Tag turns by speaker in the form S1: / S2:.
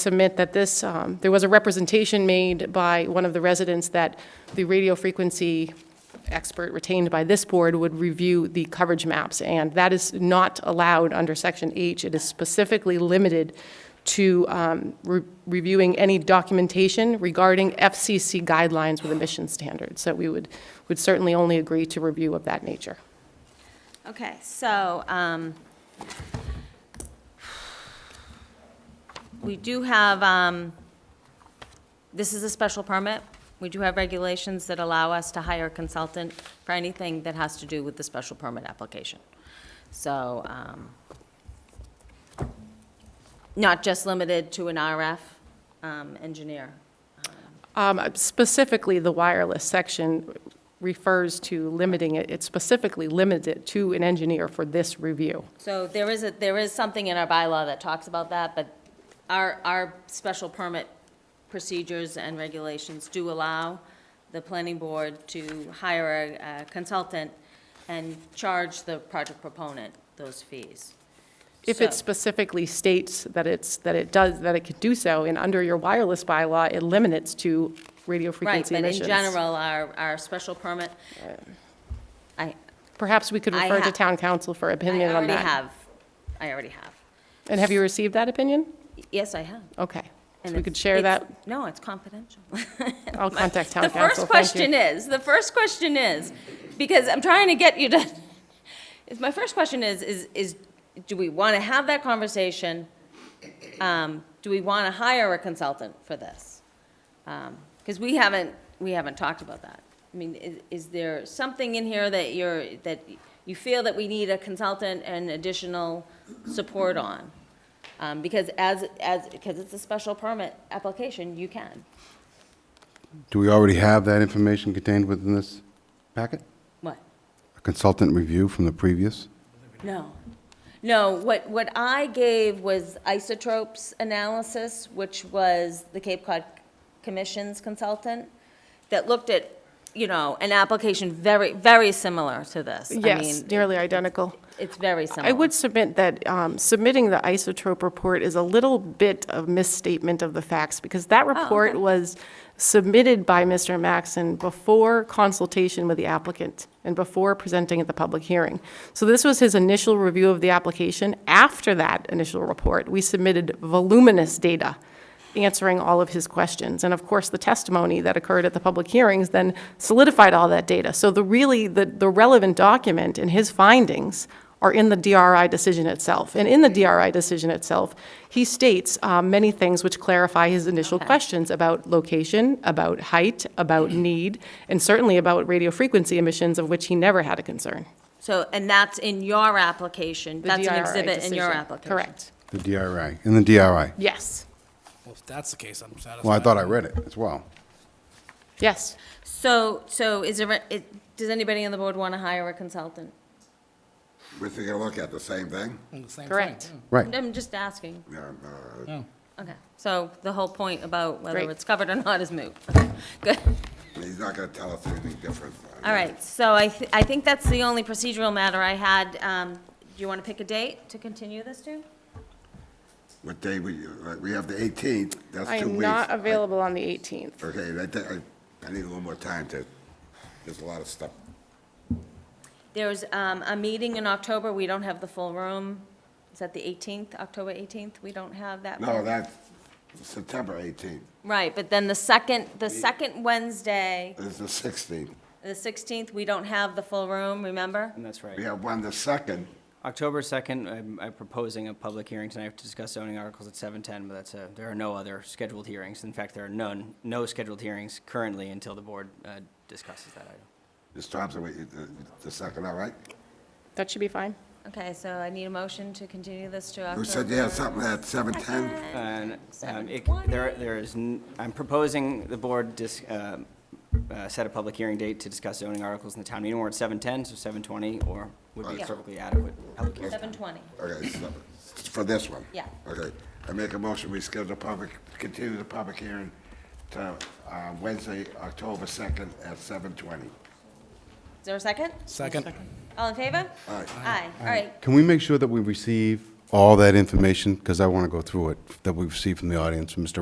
S1: submit that this, um, there was a representation made by one of the residents that the radio frequency expert retained by this board would review the coverage maps, and that is not allowed under Section H. It is specifically limited to um, re- reviewing any documentation regarding FCC guidelines with emission standards. So we would, would certainly only agree to review of that nature.
S2: Okay, so, um, we do have, um, this is a special permit. We do have regulations that allow us to hire a consultant for anything that has to do with the special permit application. So, um, not just limited to an RF, um, engineer.
S1: Um, Specifically, the wireless section refers to limiting it, it's specifically limited to an engineer for this review.
S2: So there is a, there is something in our bylaw that talks about that, but our, our special permit procedures and regulations do allow the planning board to hire a a consultant and charge the project proponent those fees.
S1: If it
S2: So-
S1: specifically states that it's, that it does, that it could do so, and under your wireless bylaw, it limits to radio
S2: Right,
S1: frequency
S2: but in
S1: emissions.
S2: general, our, our special permit, I,
S1: Perhaps we could
S2: I
S1: refer to
S2: ha-
S1: town council for
S2: I
S1: opinion on
S2: already
S1: that.
S2: have, I already have.
S1: And have you received that opinion?
S2: Yes, I have.
S1: Okay. So
S2: And
S1: we
S2: it's-
S1: could share
S2: it's-
S1: that,
S2: No, it's confidential.
S1: I'll contact town
S2: The
S1: council.
S2: first
S1: Thank
S2: question
S1: you.
S2: is, the first question is, because I'm trying to get you to, is my first question is, is, is, do we want to have that conversation? Um, Do we want to hire a consultant for this? Because we haven't, we haven't talked about that. I mean, is, is there something in here that you're, that you feel that we need a consultant and additional support on? Um, Because as, as, because it's a special permit application, you can.
S3: Do we already have that information contained within this packet?
S2: What?
S3: A consultant review from the previous?
S2: No. No, what, what I gave was isotopes analysis, which was the Cape Cod Commission's consultant that looked at, you know, an application very, very similar to this. I
S1: Yes,
S2: mean,
S1: nearly identical.
S2: It's very similar.
S1: I would submit that um, submitting the isotope report is a little bit of misstatement of the facts, because that report
S2: Oh, okay.
S1: was submitted by Mr. Maxon before consultation with the applicant and before presenting at the public hearing. So this was his initial review of the application. After that initial report, we submitted voluminous data answering all of his questions. And of course, the testimony that occurred at the public hearings then solidified all that data. So the really, the, the relevant document and his findings are in the DRI decision itself. And in the DRI decision itself, he states um, many things which clarify his initial questions about location, about height, about need, and certainly about radio frequency emissions, of which he never had a concern.
S2: So, and that's in your application,
S1: The
S2: that's an
S1: DRI
S2: exhibit in your
S1: decision.
S2: application.
S1: Correct,
S3: The DRI, in the DRI.
S1: yes,
S4: Well, if that's the case, I'm satisfied.
S3: Well, I thought I read it as well.
S1: yes.
S2: So, so is there, it, does anybody on the board want to hire a consultant?
S5: We're taking a look at the same thing?
S4: The same thing, Hmm.
S1: Correct.
S4: yeah.
S3: Right.
S2: I'm just asking.
S5: Yeah, uh,
S2: Okay, so the whole point about whether
S1: Great.
S2: it's covered or not is moot. Okay, Good.
S1: Oh.
S5: He's not gonna tell us anything different.
S2: All right, so I, thi- I think that's the only procedural matter I had. Um, Do you want to pick a date to continue this to?
S5: What day we, uh, we have the eighteenth, that's
S1: I
S5: two weeks.
S1: am not available on the 18th.
S5: Okay, I think, I, I need a little more time to, there's a lot of stuff.
S2: There's um, a meeting in October, we don't have the full room. Is that the 18th, October 18th? We don't have that.
S5: No,
S2: full-
S5: that's September eighteenth,
S2: Right, but then the second, the second Wednesday,
S5: it's the sixteenth.
S2: the 16th, we don't have the full room, remember?
S6: And that's right.
S5: We have one the second,
S6: October 2nd, I'm- I'm proposing a public hearing tonight to discuss zoning articles at 7:10, but that's a, there are no other scheduled hearings. In fact, there are none, no scheduled hearings currently until the board uh, discusses that item.
S5: Ms. Thompson, we, the, the second, all right?
S1: That should be fine.
S2: Okay, so I need a motion to continue this to October.
S5: You said you had something at seven ten?
S6: And um, it- there, there is, n- I'm proposing the board dis- um, uh, set a public hearing date to discuss zoning articles in the town meeting warrant at 7:10, so 7:20 or would be
S5: Yeah.
S6: perfectly adequate public hearing.
S2: 7:20.
S5: Okay, so, for this one?
S2: Yeah.
S5: Okay, I make a motion, we schedule the public, continue the public hearing to uh, Wednesday, October 2nd at 7:20.
S2: Is there a second?
S4: Second.
S2: All in favor?
S5: Aye.
S2: Aye, all right.
S3: Can we make sure that we receive all that information, because I want to go through it, that we've received from the audience, from Mr.